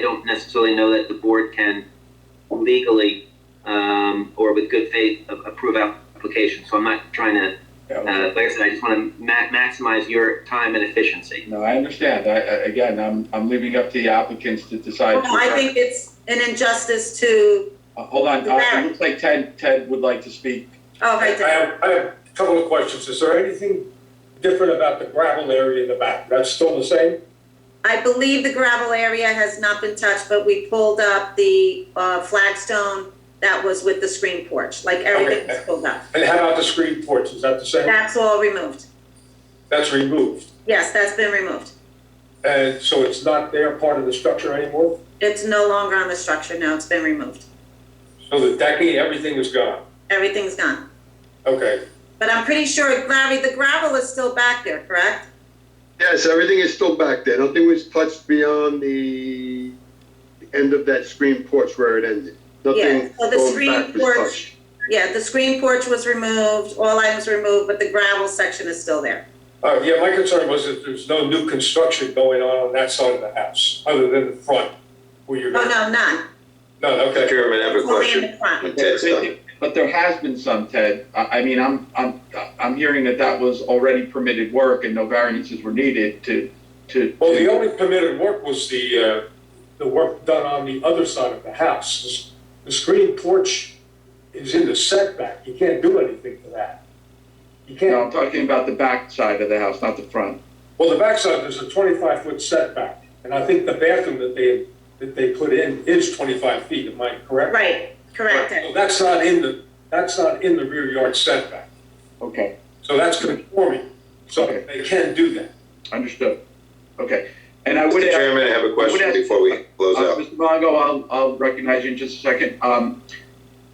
I don't necessarily know that the board can legally, um, or with good faith, a- approve applications. So I'm not trying to, uh, Yeah, like I said, I just want to ma- maximize your time and efficiency. No, I understand. I, I, again, I'm, I'm leaving up to the applicants to decide. No, I think it's an injustice to, Uh, Hold on, uh, it looks like Ted, Ted would like to speak. oh, I right there. have, I have a couple of questions. Is there anything different about the gravel area in the back? That's still the same? I believe the gravel area has not been touched, but we pulled up the uh, flagstone that was with the screen porch, like everything was pulled up. And how about the screen porch? Is that the same? That's all removed. That's removed. Yes, that's been removed. And so it's not there part of the structure anymore? It's no longer on the structure now, it's been removed. So the decking, everything is gone? Everything's gone. Okay. But I'm pretty sure, Larry, the gravel is still back there, correct? Yes, everything is still back there. Nothing was touched beyond the end of that screen porch where it ended. Nothing Yeah, so the going screen back was porch- touched. Yeah, the screen porch was removed, all items removed, but the gravel section is still there. Uh, yeah, my concern was that there's no new construction going on on that side of the house, other than the front, where you're. Oh, no, none. None, okay. Chairman, I have a Only in question. the front. When Ted's done. But there has been some, Ted. I, I mean, I'm, I'm, I'm hearing that that was already permitted work and no variances were needed to, to. Well, the only permitted work was the, uh, the work done on the other side of the house. The s- The screen porch is in the setback, you can't do anything to that. You No, I'm can't, talking about the back side of the house, not the front. well, the backside, there's a twenty-five foot setback, and I think the bathroom that they, that they put in is twenty-five feet, am I correct? Right, correct. So That's not in the, that's not in the rear yard setback, Okay, so that's conforming, so Okay. they can do that. understood. Okay, and I would Mr. ask. Chairman, I have a question ask- before we close Uh, out. Mr. Longo, I'll, I'll recognize you in just a second. Um,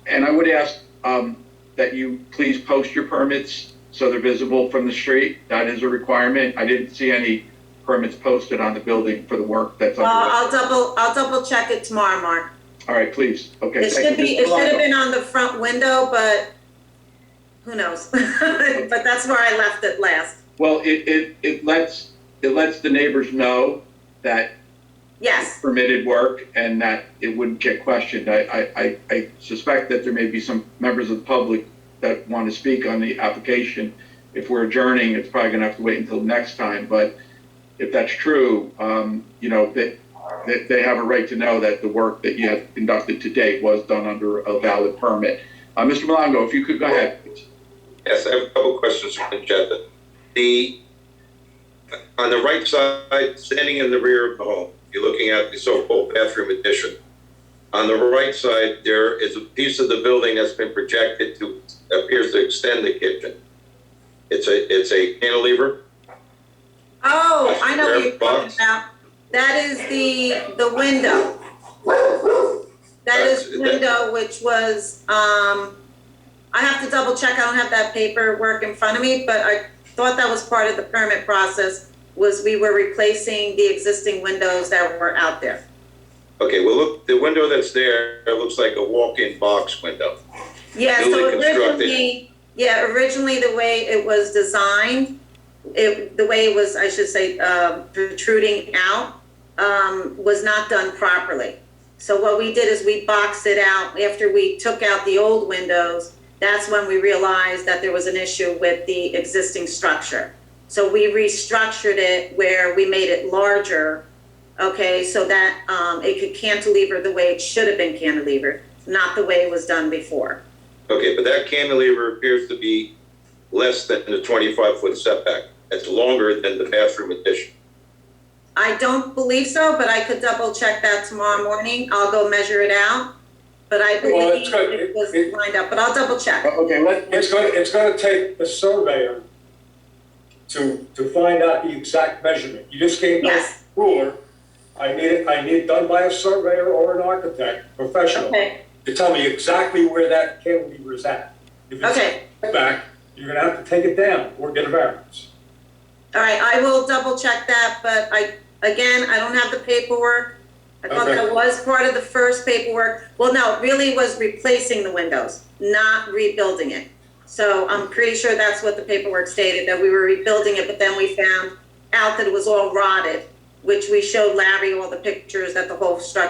and I would ask, um, that you please post your permits so they're visible from the street. That is a requirement. I didn't see any permits posted on the building for the work that's Well, underway. I'll double, I'll double check it tomorrow, Mark. All right, please. Okay. It thank should you. be, Mr. it should Longo. have been on the front window, but who knows? But that's where I left it last. Well, it, it, it lets, it lets the neighbors know that Yes, permitted work and that it wouldn't get questioned. I, I, I- I suspect that there may be some members of the public that want to speak on the application. If we're adjourning, it's probably gonna have to wait until next time, but if that's true, um, you know, that, that they have a right to know that the work that you have conducted to date was done under a valid permit. Uh, Mr. Malongo, if you could go ahead. Yes, I have a couple of questions for the agenda. The, on the right side, standing in the rear of the home, you're looking at the so-called bathroom addition. On the right side, there is a piece of the building that's been projected to, appears to extend the kitchen. It's a, it's a cantilever. oh, I know what you're talking Box. about. That is the, the window. That is That's- that- window which was, um, I have to double check, I don't have that paperwork in front of me, but I thought that was part of the permit process, was we were replacing the existing windows that were out there. Okay, well, look, the window that's there, it looks like a walk-in box window. Yeah, so newly constructed. originally, yeah, originally the way it was designed, it, the way it was, I should say, um, protruding out, um, was not done properly. So what we did is we boxed it out after we took out the old windows. That's when we realized that there was an issue with the existing structure. So we restructured it where we made it larger, okay, so that, um, it could cantilever the way it should have been cantilevered, not the way it was done before. Okay, but that cantilever appears to be less than the twenty-five foot setback. It's longer than the bathroom addition. I don't believe so, but I could double check that tomorrow morning. I'll go measure it out. But I Well, believe it's good. it was It- lined up, but I'll double check. Okay, let, It's gonna, it's gonna take a surveyor to, to find out the exact measurement. You just can't go Yes, ruler, I need it, I need it done by a surveyor or an architect, professional, okay, to tell me exactly where that cantilever is at. If okay. it's back, you're gonna have to take it down or get a variance. All right, I will double check that, but I, again, I don't have the paperwork. I thought Okay. that was part of the first paperwork. Well, no, it really was replacing the windows, not rebuilding it. So I'm pretty sure that's what the paperwork stated, that we were rebuilding it, but then we found out that it was all rotted which we showed Larry all the pictures that the whole structure